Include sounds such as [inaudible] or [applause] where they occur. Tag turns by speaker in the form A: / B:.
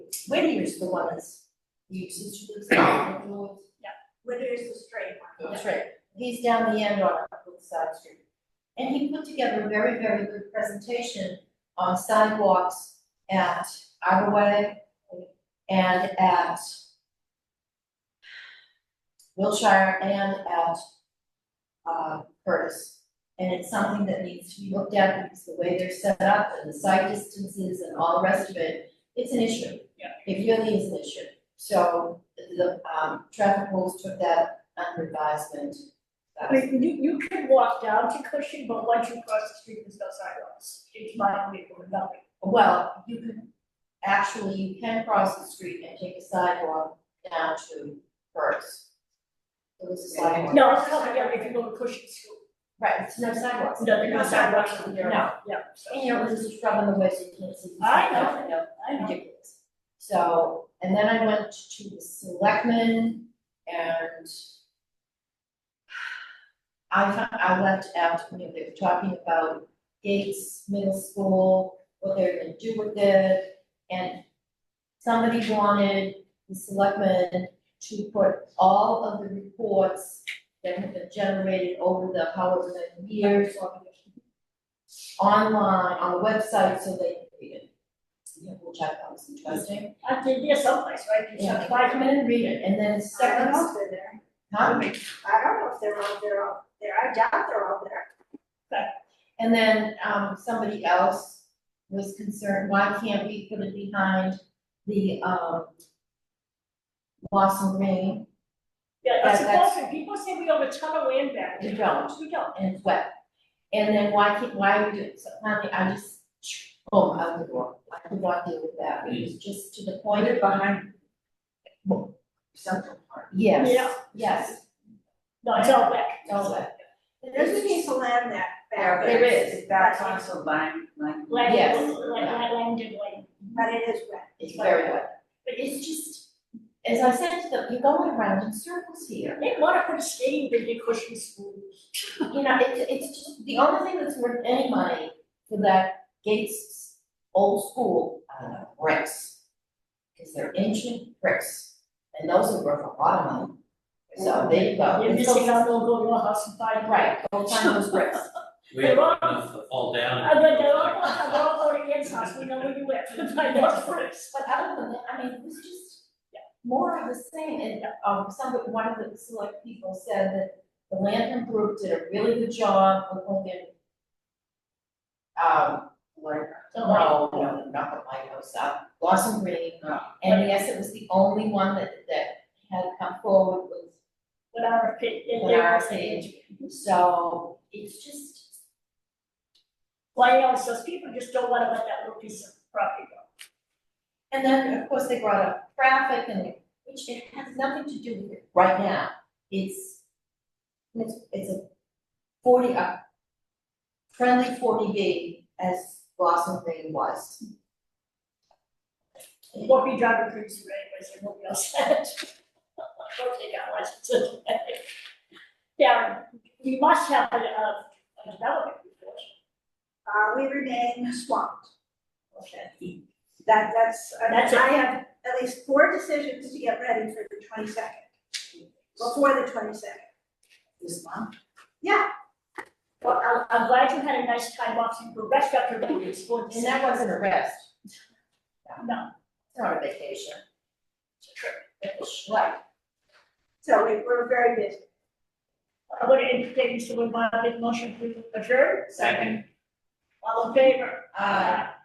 A: Whittier's the one that's uses to the side, yeah, Whittier's the straight one. That's right, he's down the end on Upwood Side Street. And he put together a very, very good presentation on sidewalks at Arborway and at Wilshire and at uh, Curtis. And it's something that needs to be looked at because the way they're set up and the site distances and all the rest of it, it's an issue.
B: Yeah.
A: It really is an issue. So the um traffic rules took that under advisement.
B: I mean, you, you can walk down to Cushing, but once you cross the street, there's no sidewalks. It's my way or nothing.
A: Well, you can, actually, you can cross the street and take a sidewalk down to Curtis. There was a sidewalk.
B: No, it's coming down if you go to Cushing School.
A: Right, it's no sidewalks.
B: No, there's no sidewalks from there.
A: No.
B: Yeah.
A: And you know, there's a shrub in the way, so you can't see. the
B: I
A: sidewalk,
B: know.
A: you know.
B: I know.
A: ridiculous. So, and then I went to the selectmen and I found, I left out, you know, they were talking about Gates Middle School, what they're gonna do with it. And somebody wanted the selectmen to put all of the reports that have been generated over the however many years online, on the website, so they could read it. Yeah, we'll check that, it's interesting.
B: I did, yeah, someplace, right? You
A: Yeah,
B: just
A: if I come in and read it, and then
C: I don't
A: second,
C: know if they're there.
A: huh?
C: I don't know if they're all, they're all there. I doubt they're all there.
A: And then, um, somebody else was concerned, why can't we put it behind the, um, Blossom Lane,
B: Yeah, that's
A: Yeah, that's-
B: important. People say we own a ton of land back.
A: We don't.
B: We don't.
A: and it's wet? And then why can't, why are we doing, so finally, I just, boom, out the door, I could not deal with that, it was just to the point. behind.
C: Something.
A: Yes,
B: Yeah.
A: yes,
B: No, it's all back.
A: it's all wet,
C: There's a piece of land that back.
A: There is.
C: That's
D: also line, line.
B: Land,
A: Yes.
B: land, land, land, and land.
C: But it is wet.
A: it's very wet, but it's just, as I said to them, you're going around in circles here.
B: They wanna put a skating rink in Cushing School.
A: You know, it's, it's just, the only thing that's worth any money for that Gates old school, I don't know, bricks. Cause they're ancient bricks, and those are worth a lot of money. So there you go.
B: You're
A: And so-
B: missing out, they'll go to your house and buy.
A: Right, go find those bricks.
E: We have enough to fall down.
B: I bet they're all, they're all going against us. We know where you live. Find out first.
A: But other than that, I mean, it was just more of the same, and, um, some, one of the select people said that the Lantern Group did a really good job of looking. Um, learn
B: The
A: No, no, not the lighthouse, uh, Blossom Green, and yes, it was the only one that, that had come forward with,
B: What our opinion,
A: with our stage, so it's just,
B: Why else, those people just don't wanna let that little piece of property go.
A: and then, of course, they brought up traffic and, which it has nothing to do with it right now, it's, it's, it's a forty, a friendly forty B as Blossom Green was.
B: It Won't be driving cruiser anyways, it won't be [laughs] upset. Don't take out licenses. Darren, we must have a, uh, a development report.
C: Uh, we remain swamped.
B: Okay.
C: That, that's, I
B: That's it.
C: I have at least four decisions to get ready for the twenty-second. Before the twenty-second.
D: This month.
B: Well, I'm, I'm glad you had a nice time watching the rest of your meetings for this.
A: And that wasn't a rest,
B: No,
A: it's not a vacation,
B: it's a trip.
A: it's a schlep.
C: So we, we're very busy.
B: I would entertain Mr. Woodbine, make a motion to adjourn.
E: Second.
B: All in favor?
A: Uh,